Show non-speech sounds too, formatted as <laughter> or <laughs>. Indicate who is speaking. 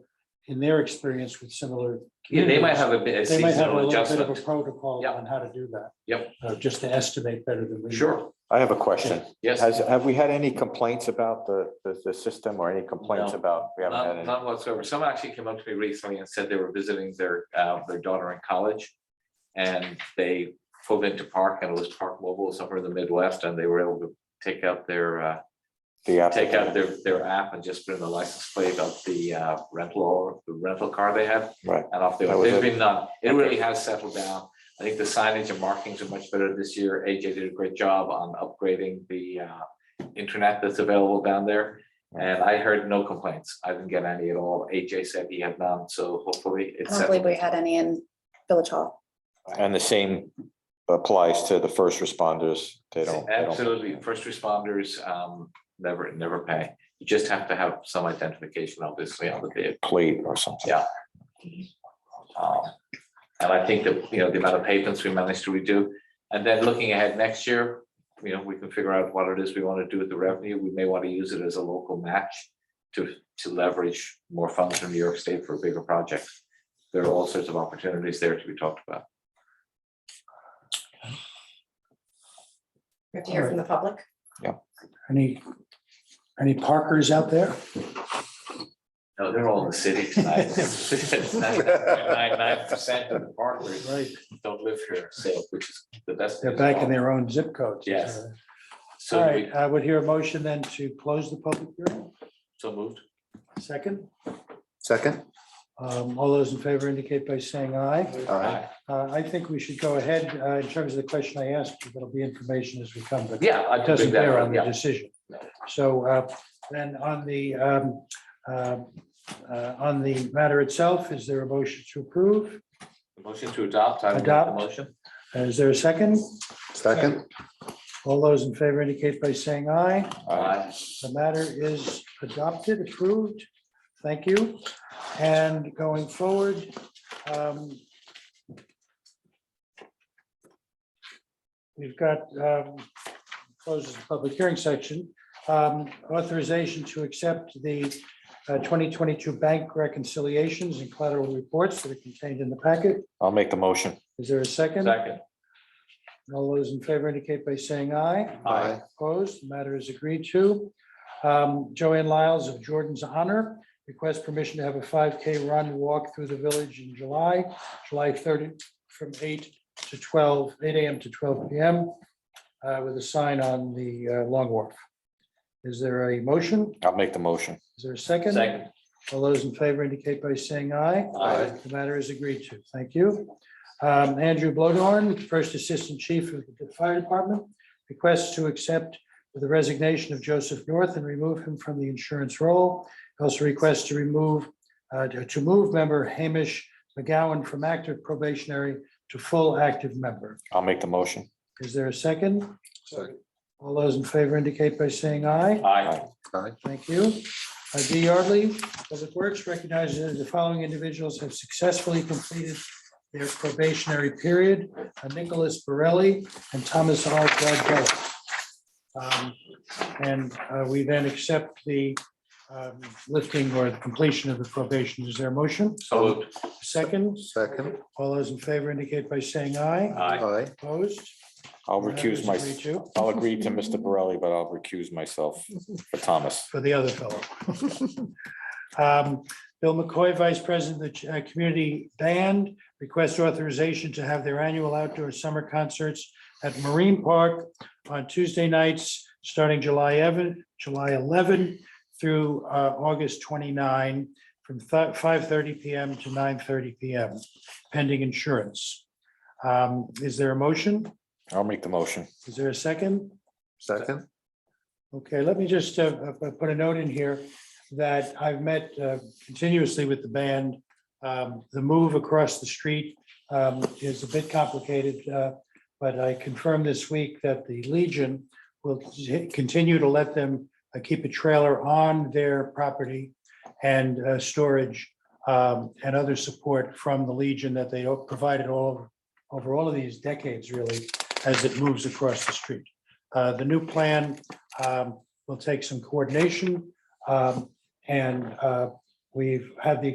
Speaker 1: in their experience with similar.
Speaker 2: Yeah, they might
Speaker 1: communities,
Speaker 2: have a bit of
Speaker 1: They might have a
Speaker 2: seasonal
Speaker 1: little bit of a
Speaker 2: adjustment.
Speaker 1: protocol
Speaker 2: Yeah.
Speaker 1: on how to do that.
Speaker 2: Yep.
Speaker 1: Uh, Just to estimate better than we. do.
Speaker 2: Sure,
Speaker 3: I have a question.
Speaker 2: yes.
Speaker 3: Has, have we had any complaints about the, the, the system or any complaints
Speaker 2: No.
Speaker 3: about? We haven't had
Speaker 2: None
Speaker 3: any.
Speaker 2: none Uh, whatsoever. Someone actually came up to me recently and said they were visiting their, uh, their daughter in college. And they pulled into park and it was Park Mobile somewhere in the Midwest and they were able to take out their, uh,
Speaker 3: the
Speaker 2: take out
Speaker 3: applicant?
Speaker 2: their, their app and just put in the license plate of the uh, rental, the rental car they had.
Speaker 3: Right.
Speaker 2: And off they
Speaker 3: That
Speaker 2: went.
Speaker 3: was
Speaker 2: There's
Speaker 3: it.
Speaker 2: been none. It really has settled down. I think the signage and markings are much better this year. AJ did a great job on upgrading the uh, internet that's available down there. And I heard no complaints. I didn't get any at all. AJ said he had none, so hopefully
Speaker 4: I
Speaker 2: it's
Speaker 4: don't believe
Speaker 2: settled.
Speaker 4: we had any in Village Hall.
Speaker 3: And the same applies to the first responders. They don't. they don't-
Speaker 2: Absolutely. First responders um, never, never pay. You just have to have some identification, obviously, on the vehicle.
Speaker 3: Plate or something.
Speaker 2: Yeah. Um, And I think that, you know, the amount of pavements we managed to redo, and then looking ahead next year, you know, we can figure out what it is we want to do with the revenue. We may want to use it as a local match to, to leverage more funds from New York State for bigger projects. There are all sorts of opportunities there to be talked about.
Speaker 4: We have to hear from the public.
Speaker 1: Any, any Parkers out there?
Speaker 2: No, they're all in the city <laughs> tonight. Ninety-nine percent of the partners
Speaker 1: Right,
Speaker 2: don't live here, so, which is the best.
Speaker 1: they're back in their own zip codes.
Speaker 2: Yes.
Speaker 1: All
Speaker 2: So, we-
Speaker 1: right, I would hear a motion then to close the public hearing.
Speaker 2: so moved.
Speaker 1: Second,
Speaker 5: Second?
Speaker 1: um, all those in favor indicate by saying aye. Uh, I think we should go ahead uh, in terms of the question I asked, you. there'll be information as we come, but
Speaker 2: Yeah. I
Speaker 1: it
Speaker 2: can
Speaker 1: doesn't
Speaker 2: do that,
Speaker 1: bear on the
Speaker 2: yeah.
Speaker 1: decision.
Speaker 2: No.
Speaker 1: So uh, then on the, um, uh, uh, on the matter itself, is there a motion to approve?
Speaker 2: Motion to adopt. I would make the
Speaker 1: Adopt.
Speaker 2: Motion.
Speaker 1: Is there a second?
Speaker 5: Second?
Speaker 1: All those in favor indicate by saying aye.
Speaker 2: Aye.
Speaker 1: The matter is adopted, approved. Thank you. And going forward, um, we've got, um, closes the public hearing section. Um, Authorization to accept the uh, 2022 bank reconciliations and collateral reports that are contained in the packet.
Speaker 3: I'll make the motion.
Speaker 1: Is there a second?
Speaker 2: Second.
Speaker 1: All those in favor indicate by saying aye.
Speaker 2: Aye.
Speaker 1: Opposed, the matter is agreed to. Um, Joanne Lyles of Jordan's Honor requests permission to have a five K run walk through the village in July, July thirty, from eight to 12, 8 AM to twelve PM, uh, with a sign on the uh, Long Wharf. Is there a motion?
Speaker 3: I'll make the motion.
Speaker 1: Is there a second?
Speaker 2: Second.
Speaker 1: All those in favor indicate by saying aye.
Speaker 2: Aye.
Speaker 1: The matter is agreed to. Thank you. Um, Andrew Blodorn, First Assistant Chief of the Fire Department, requests to accept the resignation of Joseph North and remove him from the insurance roll. Also requests to remove, uh, to move member Hamish McGowan from active probationary to full active member.
Speaker 3: I'll make the motion.
Speaker 1: Is there a second?
Speaker 5: Second.
Speaker 1: All those in favor indicate by saying aye.
Speaker 2: Aye.
Speaker 1: Thank you. Uh, Dee Yardley, Public Works recognizes that the following individuals have successfully completed their probationary period, uh, Nicholas Borelli and Thomas R. Gladwell. Um, And uh, we then accept the um, lifting or completion of the probation. Is there a motion?
Speaker 2: So moved.
Speaker 1: Second,
Speaker 5: Second?
Speaker 1: all those in favor indicate by saying aye.
Speaker 2: Aye.
Speaker 5: Aye.
Speaker 1: Opposed?
Speaker 3: I'll
Speaker 1: Matter is
Speaker 3: recuse my,
Speaker 1: agreed to
Speaker 3: I'll agree to Mr. Borelli, but I'll recuse myself for Thomas.
Speaker 1: for the other fellow. <laughs> Um, Bill McCoy, Vice President of the uh, Community Band, requests authorization to have their annual outdoor summer concerts at Marine Park on Tuesday nights, starting July 11, July 11 through uh, August 29, from thi- 5:30 PM to 9:30 PM, pending insurance. Um, Is there a motion?
Speaker 3: I'll make the motion.
Speaker 1: Is there a second?
Speaker 5: Second?
Speaker 1: Okay, let me just uh, uh, put a note in here that I've met uh, continuously with the band. Um, The move across the street um, is a bit complicated, uh, but I confirmed this week that the Legion will t- continue to let them uh, keep a trailer on their property and uh, storage um, and other support from the Legion that they provided all over all of these decades, really, as it moves across the street. Uh, The new plan um, will take some coordination. um, And uh, we've had the